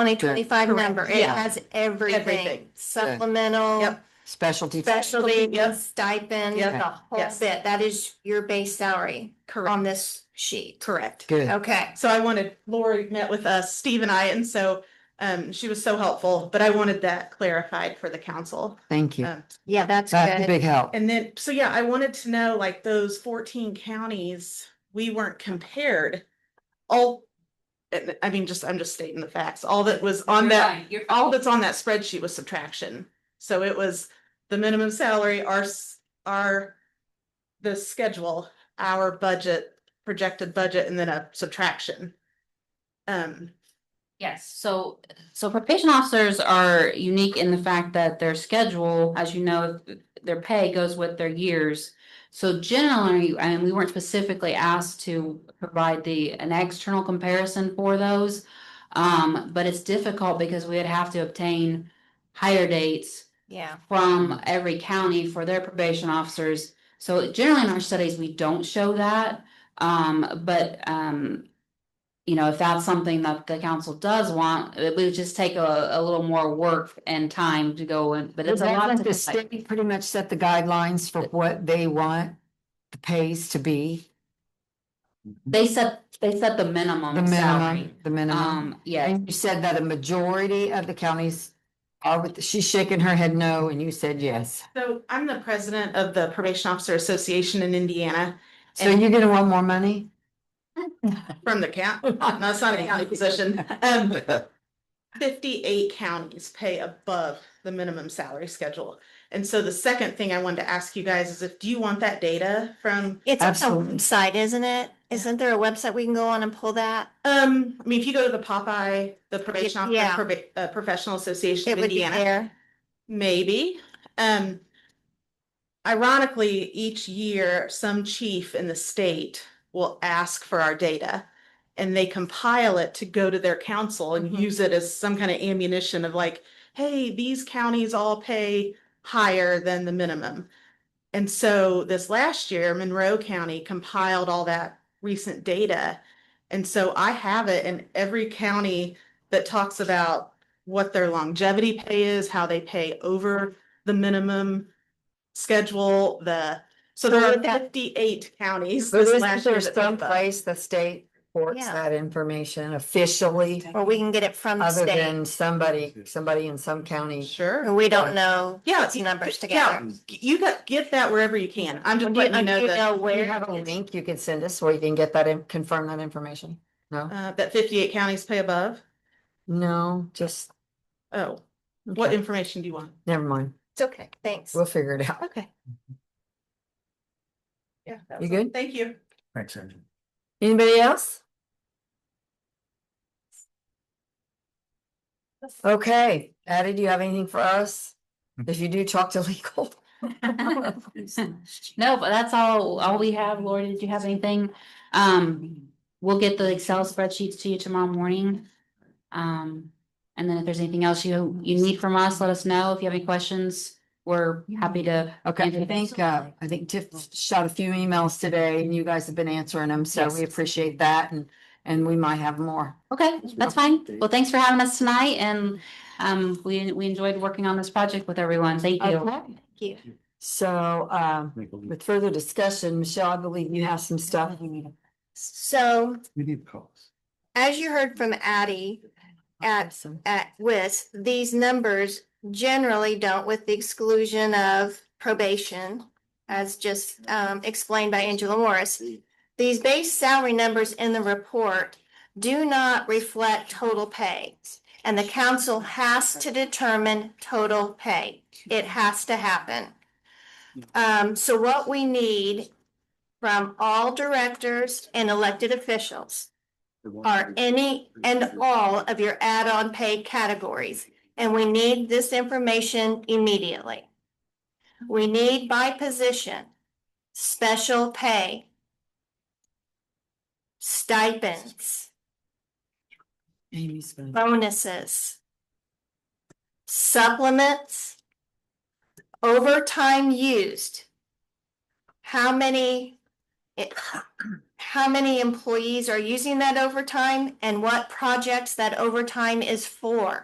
twenty twenty-five Correct. number. It Yeah. has everything, Everything. supplemental, Yep. specialty. specialty, Yep. stipend, Yep. the whole Yes. bit. That is your base salary on this sheet. Correct. Good. Okay, So I wanted, Lori met with us, Steve and I, and so um, she was so helpful, but I wanted that clarified for the council. Thank you. Um, yeah, that's That's a good. big help. And then, so yeah, I wanted to know, like, those fourteen counties, we weren't compared. All, and I mean, just, I'm just stating the facts. All that was on You're that, fine, You're fine. all that's on that spreadsheet was subtraction. So it was the minimum salary, our, s- our, the schedule, our budget, projected budget, and then a subtraction. Um, Yes, so, so probation officers are unique in the fact that their schedule, as you know, their pay goes with their years. So generally, and we weren't specifically asked to provide the, an external comparison for those. Um, but it's difficult because we'd have to obtain higher dates Yeah. Mm-hmm. from every county for their probation officers. So generally in our studies, we don't show that. Um, but, um, you know, if that's something that the council does want, it would just take a, a little more work and time to go in, but it's a lot. Doesn't The to- state pretty much set the guidelines for what they want the pays to be, They set, they set the minimum the Um, salary. minimum, the minimum. Um, yeah, And you said that a majority of the counties are with, she's shaking her head no, and you said yes. so I'm the president of the Probation Officer Association in Indiana So you're gonna want more money? from the count, no, it's not a county position. Um, fifty-eight counties pay above the minimum salary schedule. And so the second thing I wanted to ask you guys is if, do you want that data from, It's on the Absolutely. website, isn't it? Isn't there a website we can go on and pull that? um, I mean, if you go to the Popeye, the Probation Yeah. Officer Proba- uh, Professional Association It of would be Indiana, there. maybe. Um, ironically, each year, some chief in the state will ask for our data. And they compile it to go to their council and Mhm. use it as some kind of ammunition of like, hey, these counties all pay higher than the minimum. And so this last year, Monroe County compiled all that recent data. And so I have it in every county that talks about what their longevity pay is, how they pay over the minimum schedule, the, so there So are would that- fifty-eight counties. So this is last there year that did some that. place the state reports Yeah. that information officially, Or we can get it from the other state, than somebody, somebody in some county? or Sure. we don't know Yeah, these numbers yeah. together. You got, get that wherever you can. I'm just Do you letting you do know you that. know Do you where? have a it's- link you can send us where you can get that and confirm that information? No, Uh, that fifty-eight counties pay above? no, just, Oh, what okay, information do you want? never mind. It's okay, thanks. We'll figure it out. Okay. Yeah. that You was all. good? Thank you. Thanks, Andrew. Anybody else? Okay, Addie, do you have anything for us? If you do, talk to legal. No, but that's all, all we have. Lori, did you have anything? Um, we'll get the Excel spreadsheets to you tomorrow morning. Um, and then if there's anything else you, you need from us, let us know. If you have any questions, we're happy to. Okay, I Andrew. think, uh, I think Tiff shot a few emails today and you guys have been answering them, so Yes. we appreciate that and, and we might have more. Okay, that's fine. Well, thanks for having us tonight and, um, we, we enjoyed working on this project with everyone. Thank you. Okay. Thank you. So, um, with further discussion, Michelle, I believe you have some stuff. So We need calls. as you heard from Addie at, Awesome. at WIS, these numbers generally don't with the exclusion of probation, as just um, explained by Angela Morris. These base salary numbers in the report do not reflect total pay. And the council has to determine total pay. It has to happen. Um, so what we need from all directors and elected officials are any and all of your add-on pay categories, and we need this information immediately. We need by position, special pay, stipends, Amy's gonna- bonuses, supplements, overtime used, how many, how many employees are using that overtime and what projects that overtime is for.